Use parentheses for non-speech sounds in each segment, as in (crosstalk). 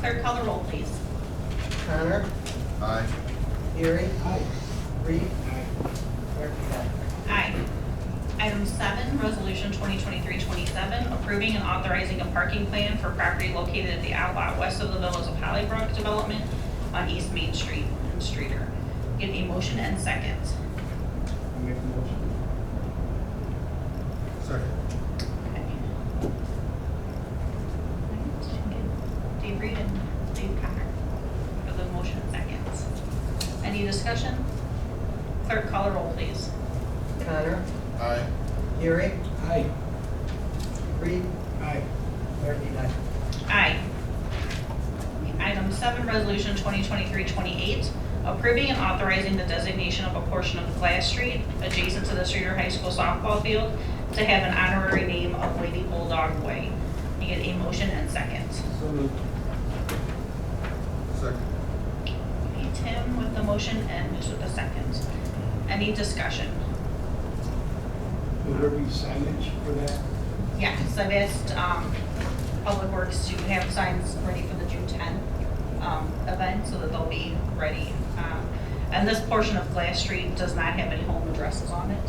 Clerk, call the roll, please. Connor, Aye. Erie. Reed. Murphy, aye. Aye. Item seven, Resolution 2023-27, approving and authorizing a parking plan for property located at the outlot west of the Villas of Hollybrook Development on East Main Street and Streeter. Get a motion and second. I make the motion. Okay. Second. Alright, Dave Reed and Dave Connor for the motion and seconds. Any discussion? Clerk, call the roll, please. Connor, Aye. Erie. Aye. Reed. Aye. Murphy, aye. Aye. Item seven, resolution 2023-28, approving and authorizing the designation of a portion of Glass Street adjacent to the Streeter High School softball field to have an honorary name of Lady Bulldog Way. You get a motion and second. So moved. Second. Okay, Tim with the motion and Ms. with the second. Any discussion? Will there be signage for that? Yeah, so I've asked um, Public Works to have signs ready for the June 10 um, event so that they'll be ready. Um, And this portion of Glass Street does not have any home addresses on it,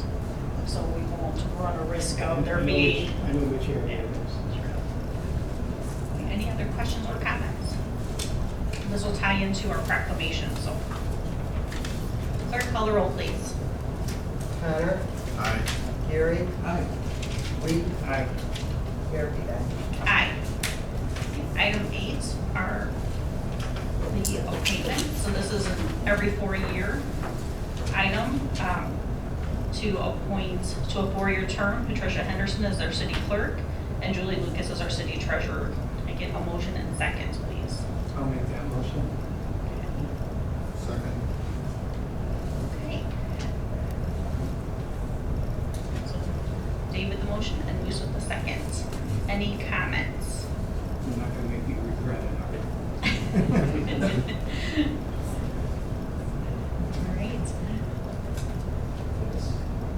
so we won't run a risk of Oh, there I know being. which- I know which area it is. Any other questions or comments? This will tie into our proclamation, so. Clerk, call the roll, please. Connor, Aye. Erie. Aye. Reed. Aye. Murphy, aye. Aye. Item eight are the appointments, so this is an every four-year item um, to appoint, to a four-year term, Patricia Henderson as our city clerk, and Julie Lucas as our city treasurer. I get a motion and second, please. I'll make that motion. Second. Okay. So, David the motion and Lisa the second. Any comments? You're not gonna make me regret it, are you? All right.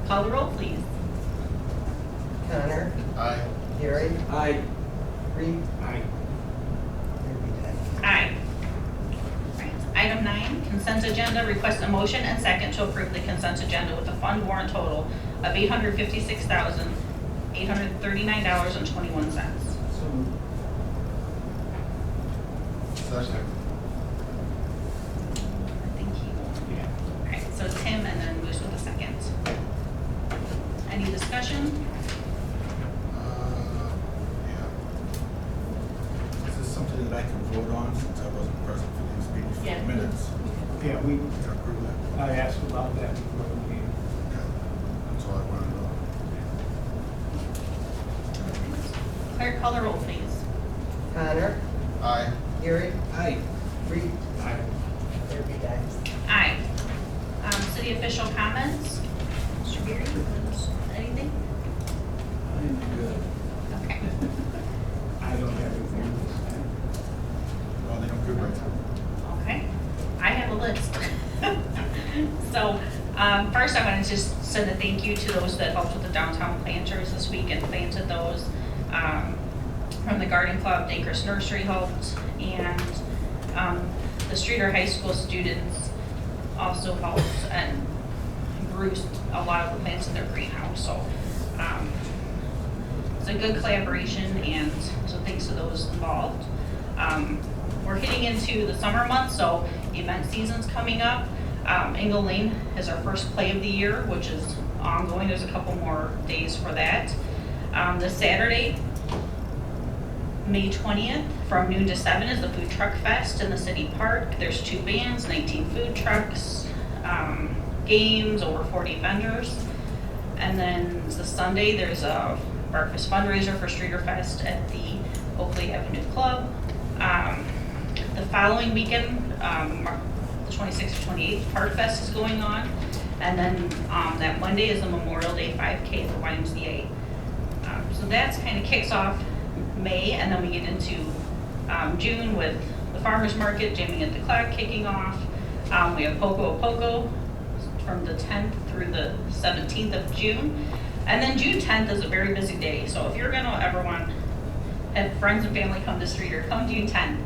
Call the roll, please. Connor, Aye. Erie. Aye. Reed. Aye. Murphy, aye. Aye. All right. Item nine, consent agenda, request a motion and second to approve the consent agenda with a fund warrant total of eight hundred fifty-six thousand, eight hundred thirty-nine dollars and twenty-one cents. So moved. Second. I think he will. Yeah. All right, so Tim and then Moose with a second. Any discussion? Uh, yeah. Is this something that I can vote on since I wasn't present for these meetings? Yeah. Minutes. Yeah, we, Can I approve that? I asked about that before the meeting. Okay. That's all I wanted to know. Clerk, call the roll, please. Connor, Aye. Erie. Aye. Reed. Aye. Murphy, aye. Aye. Um, city official comments? Mr. Beery, anything? I'm good. Okay. I don't have anything to say. Well, they don't give right now. Okay. I have a list. (laughs) So, um, first I want to just send a thank you to those that helped with the downtown planters this week and planted those. Um, from the garden club, Danker's Nursery helped, and, um, the Streeter High School students also helped and grew a lot of the plants in their greenhouse, so, um, it's a good collaboration and so thanks to those involved. Um, we're hitting into the summer months, so event season's coming up. Um, Engle Lane is our first play of the year, which is ongoing. There's a couple more days for that. Um, this Saturday, May 20th, from noon to seven is the Food Truck Fest in the city park. There's two bands, 19 food trucks, um, games, over 40 vendors. And then the Sunday, there's a breakfast fundraiser for Streeter Fest at the Oakley Avenue Club. Um, The following weekend, um, Mar- the 26th, to 28th, Park Fest is going on. And then um, that Monday is the Memorial Day 5K at the YMCA. Um, So that's kind of kicks off May, and then we get into um, June with the farmer's market, jamming at the clock kicking off. Um, We have Poco a Poco from the 10th through the 17th of June. And then June 10th is a very busy day, so if you're gonna ever want, have friends and family come to Streeter, come June 10th.